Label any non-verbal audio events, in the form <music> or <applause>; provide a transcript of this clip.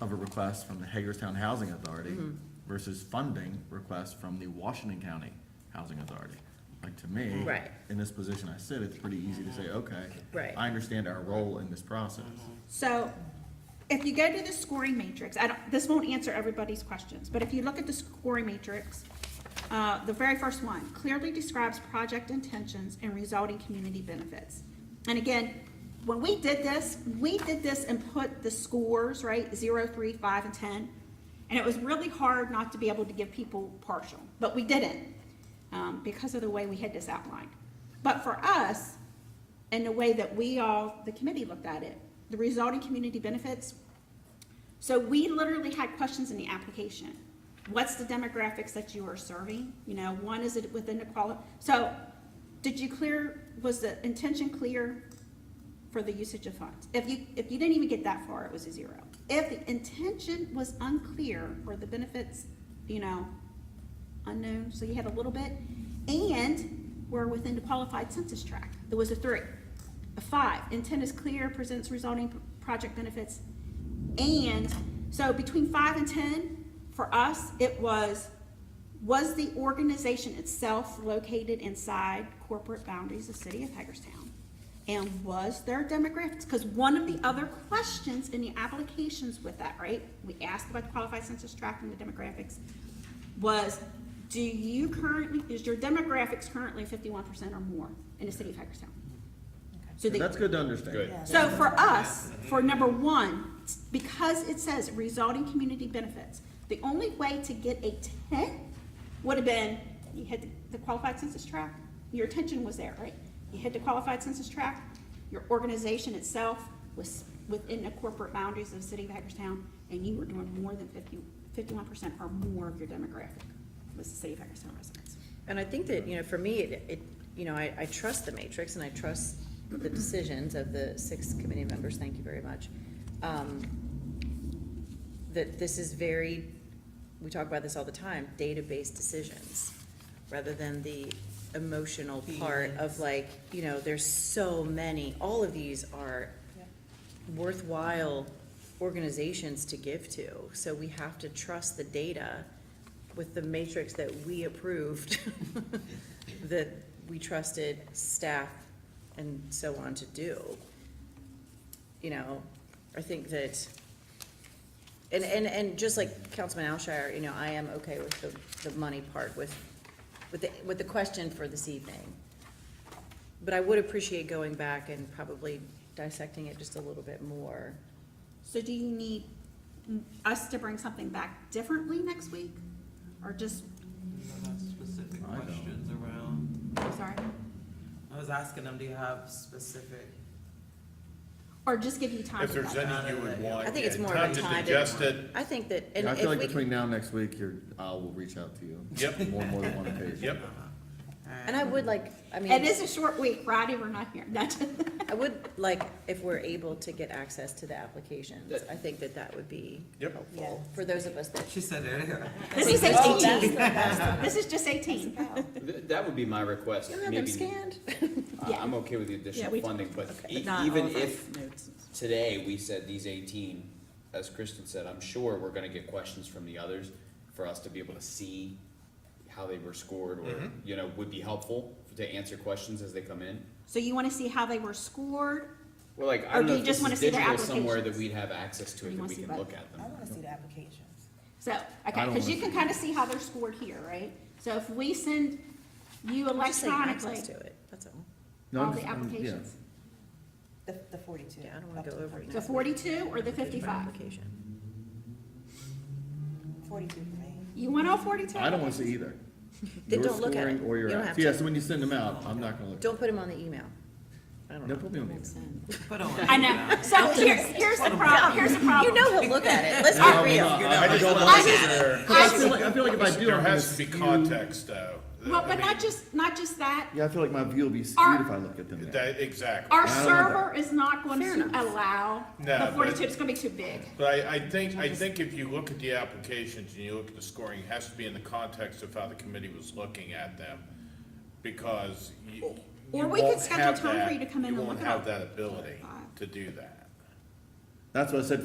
of a request from the Hagerstown Housing Authority Mm-hmm. versus funding request from the Washington County Housing Authority. Like, to me, Right. in this position I sit, it's pretty easy to say, okay, Right. I understand our role in this process. So if you go to the scoring matrix, I don't, this won't answer everybody's questions, but if you look at the scoring matrix, uh, the very first one clearly describes project intentions and resulting community benefits. And again, when we did this, we did this and put the scores, right, zero, three, five, and ten. And it was really hard not to be able to give people partial, but we didn't, um, because of the way we had this outlined. But for us, and the way that we all, the committee looked at it, the resulting community benefits. So we literally had questions in the application. What's the demographics that you are serving? You know, one, is it within the quali, so did you clear, was the intention clear for the usage of funds? If you, if you didn't even get that far, it was a zero. If the intention was unclear or the benefits, you know, unknown, so you had a little bit. And we're within the qualified census tract. There was a three. A five, intent is clear, presents resulting p- project benefits. And, so between five and ten, for us, it was, was the organization itself located inside corporate boundaries of city of Hagerstown? And was there demographics? Because one of the other questions in the applications with that, right? We asked about the qualified census tract and the demographics was, do you currently, is your demographics currently fifty-one percent or more in the city of Hagerstown? So they, That's good to understand. Good. so for us, for number one, because it says resulting community benefits, the only way to get a ten would have been, you hit the qualified census tract, your attention was there, right? You hit the qualified census tract, your organization itself was within the corporate boundaries of the city of Hagerstown, and you were doing more than 50 51 percent or more of your demographic was the city of Hagerstown residents. And I think that, you know, for me, it, it, you know, I, I trust the matrix and I trust the decisions of the six committee members, thank you very much. Um, That this is very, we talk about this all the time, data-based decisions, rather than the emotional part of like, you know, there's so many, all of these are worthwhile organizations to give to. So we have to trust the data with the matrix that we approved, <laughs> that we trusted staff and so on to do. You know, I think that, and, and, and just like Councilman Alshire, you know, I am okay with the, the money part with, with the, with the question for this evening. But I would appreciate going back and probably dissecting it just a little bit more. So do you need us to bring something back differently next week? Or just, Have Specific I don't. questions around, I'm sorry, I was asking them, do you have specific, or just give you time If to there's budget? any you would want. I think it's yeah, more of a Time time. to digest it, I think that, and Yeah, I if feel like we- between now and next week, your, I will reach out to you. Yep. More, more than one occasion. yep. and I would like, I mean. It is a short week, Friday, we're not here, <laughs> That's- I would like, if we're able to get access to the applications, I think that that would be Yep. helpful for those of us that. she said earlier. This is Oh, that's eighteen, the best. this is just eighteen. Th- That would be my request, You have them maybe, scanned? I- I'm okay with the additional we- funding, but okay. <laughs> e- even if today we said these eighteen, as Kristen said, I'm sure we're gonna get questions from the others for us to be able to see how they were scored, or, you know, would be helpful to answer questions as they come in. So you wanna see how they were scored? Well, like, Or I don't do know you if just this wanna is see their digital somewhere that applications? we'd have access to You it, that wanna we see can both? look at them. I wanna see the applications. So, okay, I don't cause you wanna can kinda see how they're scored here, right? So if we send you I'm just saying access electronically to it, that's all. No, all I'm the just- I'm- yeah. applications, The, the forty-two. Yeah, I don't wanna up go the over it. the forty-two or the fifty-five? Application. Forty-two for me. You want all forty-two? I don't wanna see either. Then Your don't look at scoring it. Or your, You don't apps. have yeah, to. so when you send them out, I'm not gonna look. Don't put them on the email. I don't No, know. put me on the email. <laughs> Put on. I know, so here, here's the problem, here's the problem. You know he'll look at it, let's No, I be will real. not. I- I I don't don't want- want there, 'cause I feel like, I feel like if I do, there I'm gonna has to be skew. context though. Well, I but mean, not just, not just that, Yeah, I feel like my view will be Our- skewed if I look at them there. That, exactly. our I don't want server is not going Fair to enough. allow No, the but- forty-two, it's gonna be too big. But I, I think, I think if you look at the applications and you look at the scoring, it has to be in the context of how the committee was looking at them. Because you, Or you we could won't schedule have time for that- you to come in and won't look at have that ability Five. to do that. That's what I said,